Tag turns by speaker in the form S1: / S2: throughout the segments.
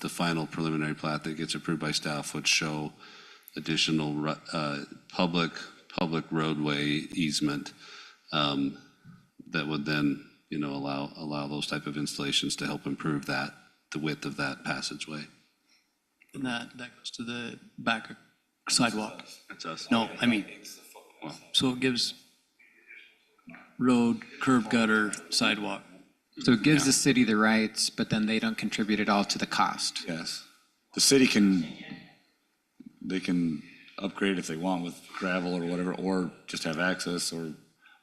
S1: the final preliminary plat that gets approved by staff would show additional ru- uh, public, public roadway easement um, that would then, you know, allow, allow those type of installations to help improve that, the width of that passageway.
S2: And that, that goes to the back sidewalk.
S1: That's us.
S2: No, I mean, so it gives road, curb gutter, sidewalk.
S3: So it gives the city the rights, but then they don't contribute at all to the cost.
S4: Yes. The city can, they can upgrade if they want with gravel or whatever, or just have access or,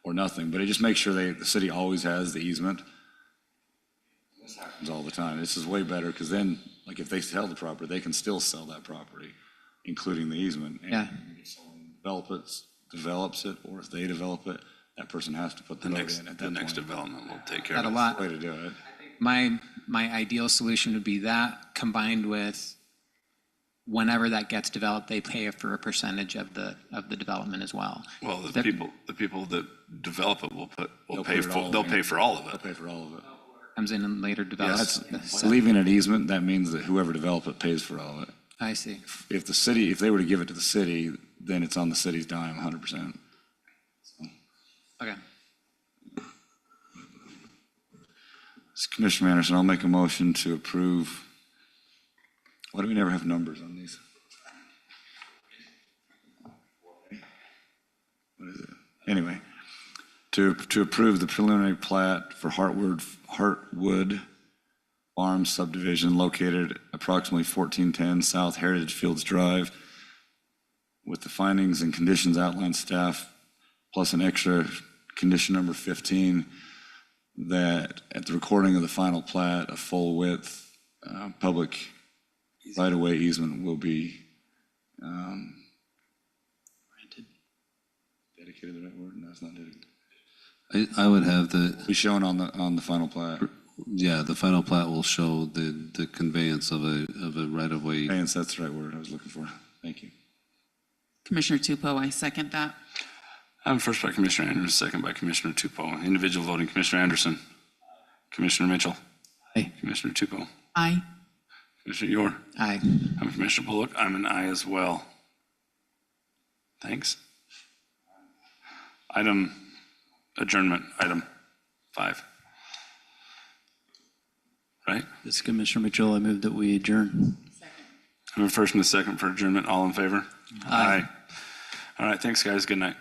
S4: or nothing. But it just makes sure they, the city always has the easement. This happens all the time. This is way better because then, like, if they sell the property, they can still sell that property, including the easement. And
S3: Yeah.
S4: if someone Develops, develops it, or if they develop it, that person has to put the road in at that point.
S1: development will take care
S3: Not a lot.
S4: Way to do it.
S3: My, my ideal solution would be that combined with whenever that gets developed, they pay for a percentage of the, of the development as well.
S5: Well, the
S3: That-
S5: people, the people that develop it will put, will
S4: They'll
S5: pay
S4: put it
S5: for,
S4: all
S5: they'll
S4: in.
S5: pay for all of
S4: They'll
S5: it.
S4: pay for all of it.
S3: Comes in and later develops.
S4: That's,
S3: So-
S4: leaving an easement, that means that whoever develops it pays for all of it.
S3: I see.
S4: If the city, if they were to give it to the city, then it's on the city's dime hundred percent.
S3: Okay.
S4: Commissioner Anderson, I'll make a motion to approve. Why do we never have numbers on these? What is it? Anyway, to, to approve the preliminary plat for Hartwood, Hartwood Farm subdivision located approximately fourteen ten South Heritage Fields Drive with the findings and conditions outlined staff, plus an extra condition number fifteen that at the recording of the final plat, a full width, uh, public right-of-way easement will be, um, Dedicated the right word? No, it's not dedicated.
S1: I, I would have the,
S4: Be shown on the, on the final plat.
S1: yeah, the final plat will show the, the conveyance of a, of a right-of-way
S4: Conveyance, that's the right word I was looking for. Thank you.
S6: Commissioner Tupou, I second that.
S5: Um, first by Commissioner Anderson, second by Commissioner Tupou. Individual voting, Commissioner Anderson. Commissioner Mitchell.
S3: Aye.
S5: Commissioner Tupou.
S6: Aye.
S5: Commissioner Yor.
S3: Aye.
S5: I'm Commissioner Bullock. I'm an aye as well. Thanks. Item adjournment, item five. Right?
S2: This is Commissioner Mitchell. I move that we adjourn.
S5: I have a first and a second for adjournment. All in favor? Aye. All right, thanks, guys. Good night.